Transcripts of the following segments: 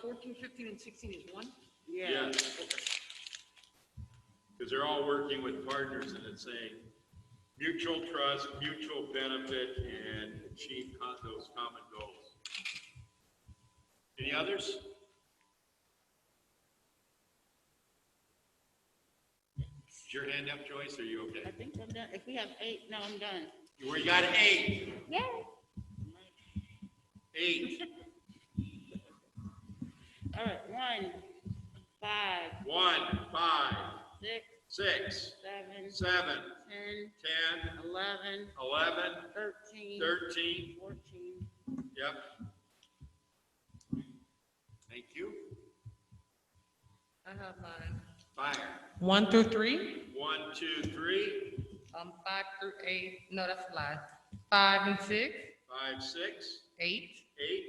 14, 15, and 16 is one? Yeah, Yeah, because they're all working with partners and it's saying mutual trust, mutual benefit, and achieve co- those common goals. Any others? Is your hand up, Joyce? Are you I okay? think I'm done. If we have eight, no, I'm done. We got eight, Yeah. eight, All right, one, five, one, five, six, six, seven, seven, ten, ten, eleven, eleven, thirteen, thirteen, fourteen. Yep. Thank you. I have mine. Fire. One through three? One, two, three, Um, five through eight, no, that's a lie. Five and six, five, six, eight, eight,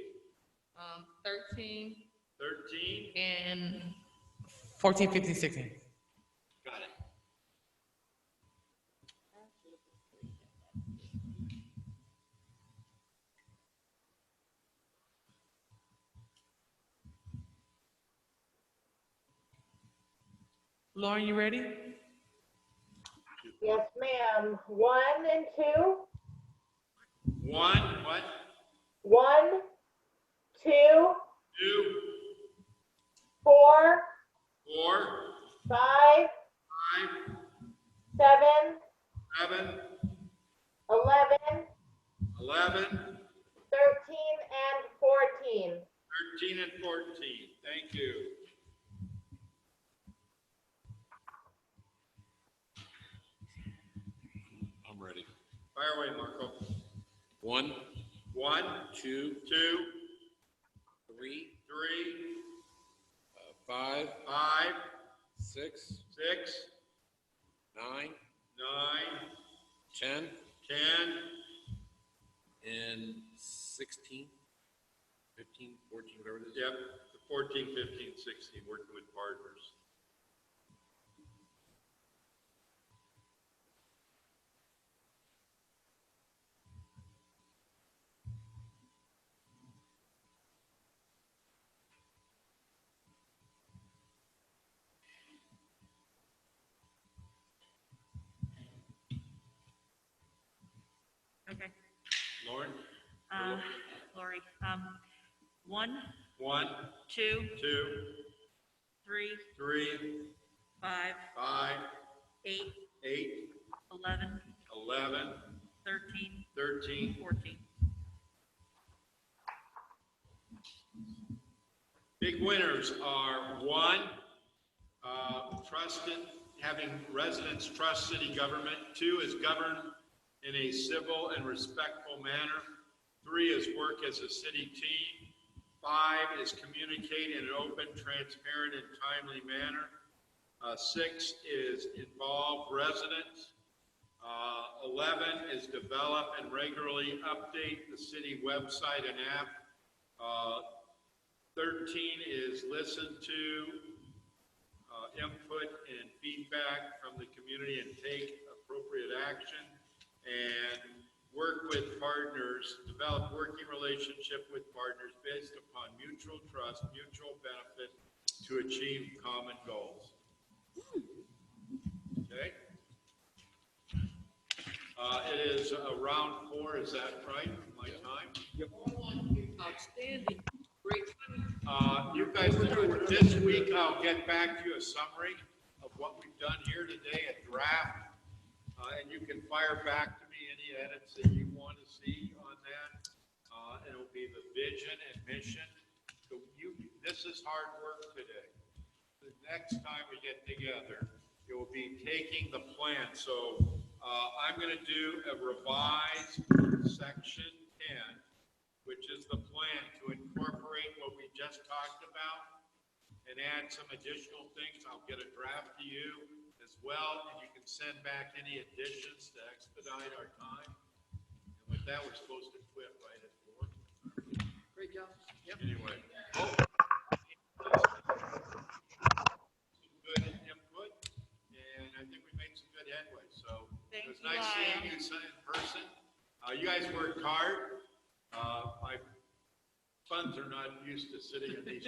um, 13, thirteen. and 14, 15, 16. Got it. Lauren, you ready? Yes, ma'am. One and two, One, what? one, two, Two, four, four, five, five, seven, seven, eleven, eleven, thirteen, and fourteen. thirteen, and fourteen. Thank you. I'm ready. Fire away, Marco. One, One, two, two, three, three, uh, five, five, six, six, nine, nine, ten, ten, and sixteen, fifteen, fourteen, whatever it is. Yep, the 14, 15, 16, working with partners. Okay, Lauren? um, Lori, um, one, One, two, two, three, three, five, five, eight, eight, eleven, 11, thirteen, 13. fourteen. Big winners are one, uh, trusted, having residents trust city government. Two is govern in a civil and respectful manner. Three is work as a city team. Five is communicate in an open, transparent, and timely manner. Uh, Six is involve residents. Uh, 11 is develop and regularly update the city website and app. Uh, 13 is listen to uh, input and feedback from the community and take appropriate action and work with partners, develop working relationship with partners based upon mutual trust, mutual benefit to achieve common goals. Okay? Uh, It is uh, round four, is that right, my time? outstanding, great. Uh, You guys will do it this week. I'll get back to you a summary of what we've done here today, a draft. Uh, And you can fire back to me any edits that you want to see on that. Uh, and It'll be the vision and mission. So you, this is hard work today. The next time we get together, it will be taking the plan. So uh, I'm going to do a revised section 10 which is the plan to incorporate what we just talked about and add some additional things. I'll get a draft to you as well, and you can send back any additions to expedite our time. And with that, we're supposed to quit right at four. Great job. Anyway. Some Good input, and I think we made some good headway, so. Thank It was you, nice seeing Lyle. you in person. Uh, you guys worked hard. Uh, my funds are not used to sitting in these